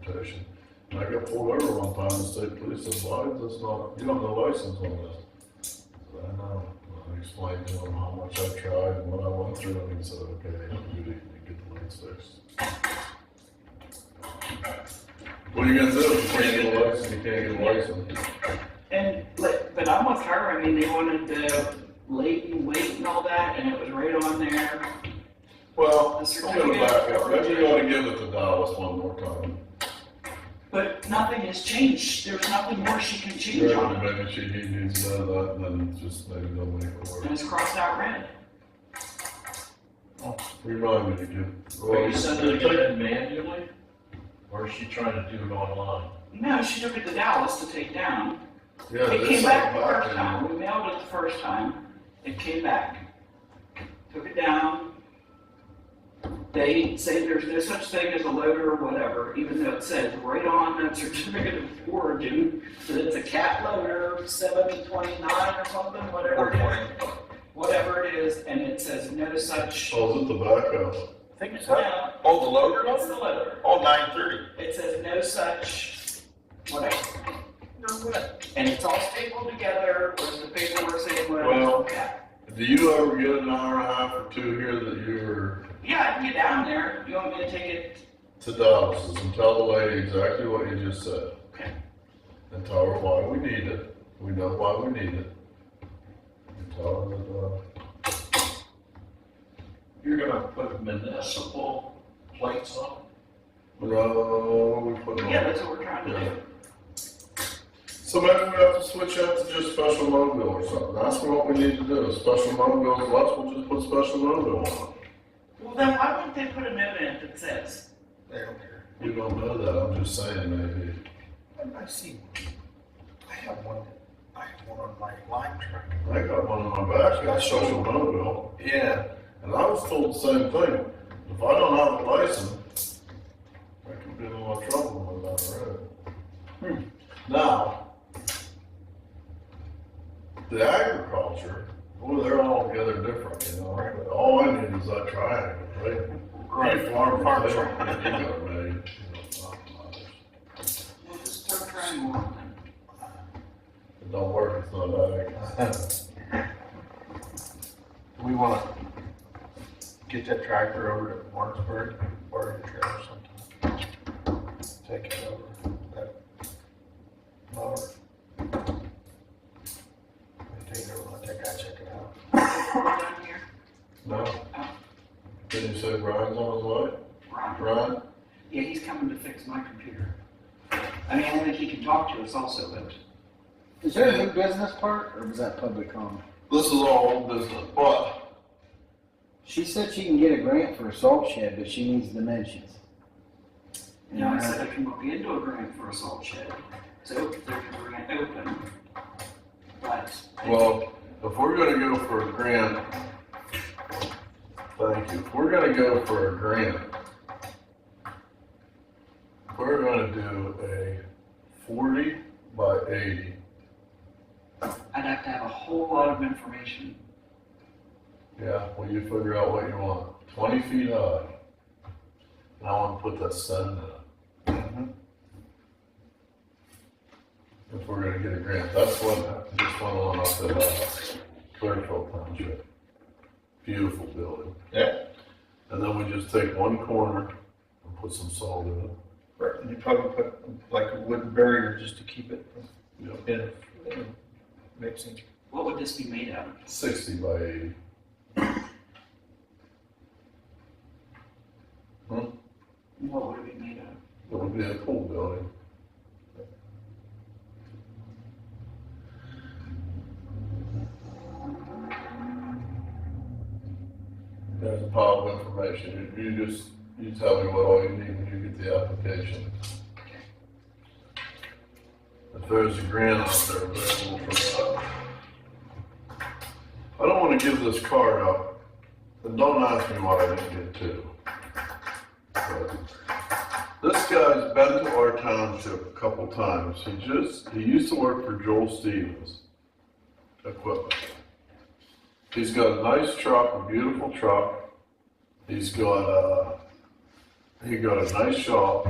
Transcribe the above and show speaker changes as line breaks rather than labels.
situation. And I got pulled over one time and state police said, why is this not, you don't have a license on this. I said, I know, And I explained to him how much I tried and what I went through, and he said, okay, they have a duty to get the lights fixed. What are you gonna do, if you can't get a license, you can't get a license,
And, but, but I'm with her, I mean, they wanted the lady wait and all that, and it was right on there.
well,
The
I'm gonna
certificate
back up,
of
maybe you
origin.
ought to give it to Dallas one more time.
But nothing has changed, there's nothing more she can change
Right,
on,
and maybe she he needs to know that, and then just maybe they'll make it
and
work.
it's crossed out red.
Remind me to give.
Are you sending it in manually, or is she trying to do it online?
No, she took it to Dallas to take down.
Yeah,
It
this
came
is
back the
back
first
in,
time, we mailed it the first time, it came back. Took it down. They say there's no such thing as a loader or whatever, even though it says right on that certificate of origin, that it's a cat loader, seven twenty-nine or something, whatever it is. Whatever it is, and it says no such.
oh, is it the backup?
I think it's that.
No,
Oh, the loader
it's
loader?
the loader,
Oh, nine thirty.
it says no such, whatever.
No, what?
And it's all stapled together with the paperwork saying what it
Well-
was.
Do you ever get an hour and a half or two here that you were
Yeah, I can get down there. You want me to take it?
to Dallas's and tell the lady exactly what you just said?
Okay.
And tell her why we need it, we know why we need it. And tell her that, uh,
You're gonna put municipal plates on?
no, we put it
Yeah,
on.
that's what we're trying to do.
So maybe we have to switch out to just special mobile or something, that's what we need to do, special mobile, let's, we'll just put special mobile on it.
Well, then why wouldn't they put a note in it that says?
They don't care.
We don't know that, I'm just saying maybe.
I see one. I have one, I have one on my lime truck.
I got one on my back, I got social mobile,
Yeah.
and I was told the same thing. If I don't have a license, I could get in a lot of trouble on that road. Hmm. Now, the agriculture, boy, they're all together different, you know, but all I need is that triangle, right? Right, farm, farm,
Farm
they
truck.
they got made, you know, not mine.
We'll just start trying one then.
If It don't work, it's not ag.
We wanna get that tractor over to Martinsburg, or a trailer sometime. Take it over, that mower. We Take it over, let that guy check it out.
We're down here.
No? Didn't you say Brian's on his way?
Right.
Brian?
Yeah, he's coming to fix my computer. I mean, I think he can talk to us also, but
Is there a new business part, or was that public comment?
This is all old business, but
She said she can get a grant for a salt shed, but she needs dimensions.
you know, I said I can look into a grant for a salt shed. So if there's a grant open. But
well, if we're gonna go for a grant, thank you. If we're gonna go for a grant, we're gonna do a forty by eighty.
I'd have to have a whole lot of information.
Yeah, well, you figure out what you want. Twenty feet high. And I wanna put that sun in it. If we're gonna get a grant, that's one, just one on up at, uh, Clearfield Township. Beautiful building.
Yeah.
And then we just take one corner and put some salt in it.
Right, and you probably put like a wooden barrier just to keep it from,
Yep.
in, in mixing.
What would this be made out of?
Sixty by eighty.
What would it be made out of?
It would be a pool building. There's a pile of information. You you just, you tell me what all you need when you get the application. If there's a grant out there available for that. I don't wanna give this card up, and don't ask me why I didn't get two. But this guy's been to our township a couple times. He just, he used to work for Joel Stevens Equipment. He's got a nice truck, a beautiful truck. He's got, uh, he got a nice shop.